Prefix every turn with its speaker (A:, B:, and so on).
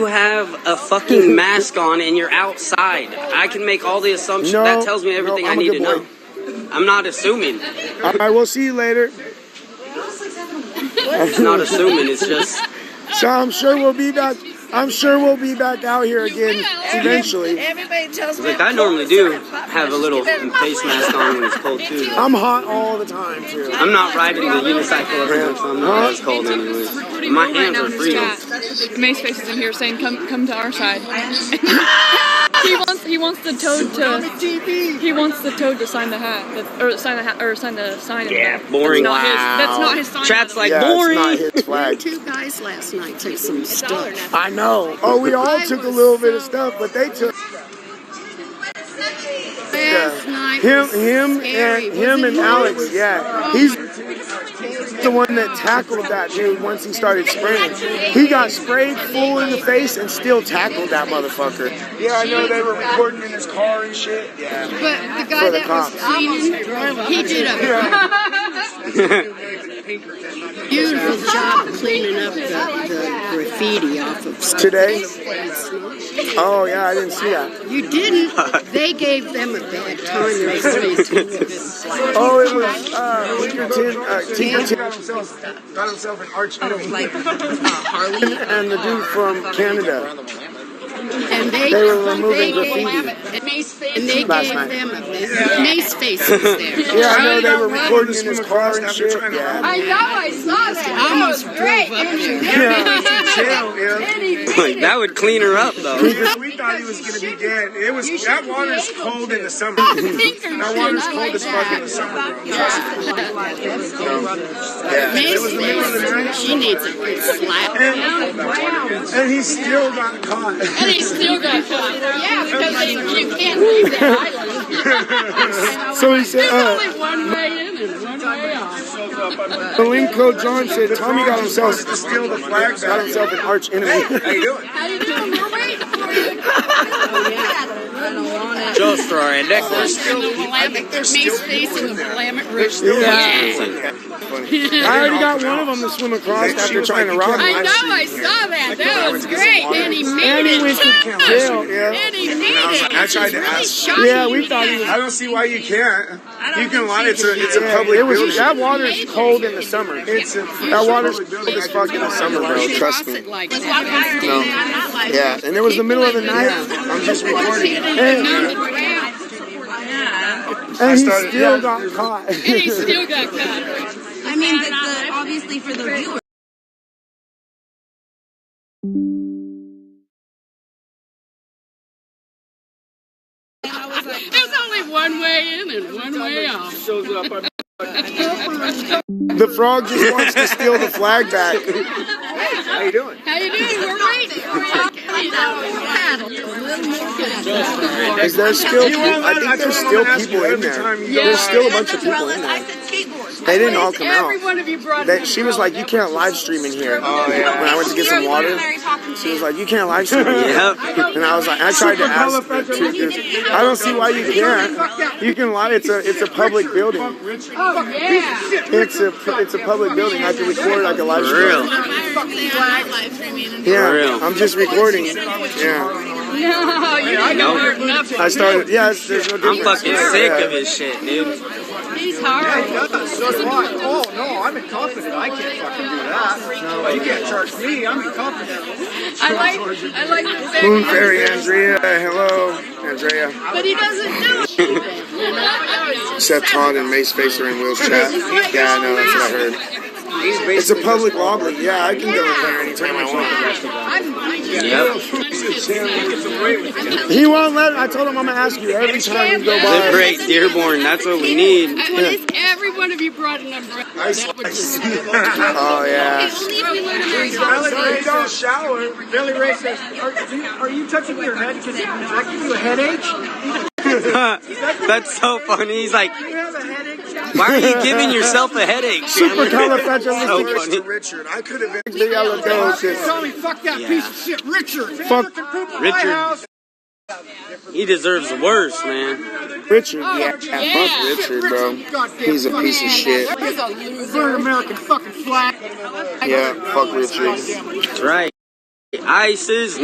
A: You have a fucking mask on and you're outside. I can make all the assumptions.
B: No,
A: that tells me everything
B: no,
A: I
B: I'm a
A: need to
B: good boy.
A: know. I'm not assuming.
B: All right, we'll see you later.
A: It's not assuming. It's just
B: So I'm sure we'll be back. I'm sure we'll be back out here again eventually.
C: Everybody tells me.
A: like I normally do have a little face mask on when it's cold too.
B: I'm hot all the time too.
A: I'm not riding the unicycle every time, so I'm not as cold anyways. My hands are free.
D: MySpace is in here saying, "Come, come to our side." he wants, he wants the toad to, he wants the toad to sign the hat, that, or sign the hat, or sign the sign. in the
A: Yeah,
D: back.
A: boring.
D: That's not his. That's not his sign.
A: Chat's like
B: Yeah, it's
A: boring.
B: not his flag.
C: Two guys last night took some stuff.
B: I know. Oh, we all took a little bit of stuff, but they took
C: Last night
B: him,
C: was
B: him,
C: scary.
B: and
C: Was
B: him
C: it
B: and
C: you?
B: Alex. Yeah, he's the one that tackled that dude once he started spraying. He got sprayed full in the face and still tackled that motherfucker. Yeah, I know they were recording in his car and shit. Yeah.
C: But the
B: For
C: guy
B: the
C: that was
B: cops.
C: cleaning, he did a beautiful job of cleaning up the, the graffiti off of stuff.
B: Today? Oh yeah, I didn't see that.
C: You didn't. They gave them a bad time. They really did.
B: Oh, it was uh, Tinkerton, uh, Tinkerton
E: got himself an arch enemy.
B: and the dude from Canada.
C: And they,
B: They were removing
C: they
B: graffiti.
C: Gave, and they
B: Last
C: gave
B: night.
C: them a Mace Face was there.
B: Yeah, I know they were recording in his car and shit. Yeah.
F: I know, I saw that.
C: I almost drove up to him.
E: Jail, yeah.
A: Like that would clean her up though.
E: Yeah, we thought he was gonna be dead. It was that water's cold in the summer. that water's cold as fuck in the summer.
C: Mace Face, she needs a good slap.
E: And he still got caught.
F: And he still got caught. Yeah, because they, you can't leave that island.
B: So he said, uh,
F: Only one way in and one way out.
B: Malenko John said Tommy got himself
E: to steal the flags
B: got
E: out of
B: himself an arch enemy.
E: How you doing?
F: How you doing? We're waiting for you.
A: Just for a necklace.
C: Mace Face and the Willamette Rouge.
B: I already got one of them to swim across after trying to rob
F: I
B: him.
F: know, I saw that. That was great. And he made
B: And he went
F: it.
B: to jail. Yeah.
F: And he made
E: was like,
F: it.
E: I tried to
F: It's really
E: ask-
F: shocking.
B: Yeah, we thought he was.
E: I don't see why you can't. You can lie. It's a it's a
B: Yeah,
E: public
B: it was,
E: building.
B: that water is cold in the summer.
E: It's a
B: That water's cold as fuck in the summer, bro. Trust me.
C: Like
B: Yeah, and it was the middle of the night.
E: I'm just recording.
B: And, and he still got caught.
D: He still got caught.
G: I mean, but the, obviously for the viewers.
F: There's only one way in and one way out.
B: The frog just wants to steal the flag back. How you doing?
F: How you doing? We're waiting for you.
B: Is there still?
E: You won't
B: I
E: let-
B: think
E: I
B: there's
E: told
B: still
E: him I'm gonna ask
B: people
E: you
B: in
E: every
B: there.
E: time you go
B: There's
E: out.
B: still a bunch of people in there. They didn't all come
F: Every
B: out.
F: one of you brought
B: They,
F: an
B: she was like, "You
F: umbrella.
B: can't live stream in here."
A: Oh,
B: When I went to get some water, she was like, "You can't live stream in here."
A: Yep.
B: And I was like, "I tried to ask." her too, dude. I don't see why you can't. You can lie. It's a it's a public building.
F: Oh, yeah.
B: It's a it's a public building. I can record. I can live
A: For
B: stream.
A: real. For
B: Yeah,
A: real.
B: I'm just recording. Yeah,
F: No, you didn't
A: No.
F: learn nothing.
B: I started. Yeah, it's, there's no
A: I'm
B: difference.
A: fucking
B: Yeah.
A: sick of his shit, dude.
F: He's hard.
E: So do I. Oh no, I'm incompetent. I can't fucking do that. No, you can't charge me. I'm incompetent.
F: I like, I like the fact
B: Moon
F: that-
B: Fairy Andrea, hello, Andrea.
F: but he doesn't do it.
B: Seth Todd and Mace Spacer in Will's chat. Yeah, I know, that's what I heard. It's a public lobby. Yeah, I can go in there anytime I want.
A: Yep.
B: He won't let. I told him I'm gonna ask you every time you go by.
A: Liberate Dearborn. That's what we need.
F: I mean, if every one of you brought an umbrella. That would just
B: Oh yeah.
E: Billy Ray don't shower. Billy Ray says, "Are you, are you touching your head because it might give you a headache?
A: That's so funny. He's like,
E: You have a headache."
A: why are you giving yourself a headache? So
B: Supercalifragilistic.
A: funny.
E: Richard, I could have been.
B: Supercalifragilistic.
E: Tell me, fuck that
A: Oh, Yeah.
E: piece of shit, Richard.
B: Fuck
A: Richard. He deserves worse, man.
B: Richard. Yeah, fuck Richard, bro. He's a piece of shit.
E: Burn American fucking flag.
B: Yeah, fuck Richard.
A: That's right. ISIS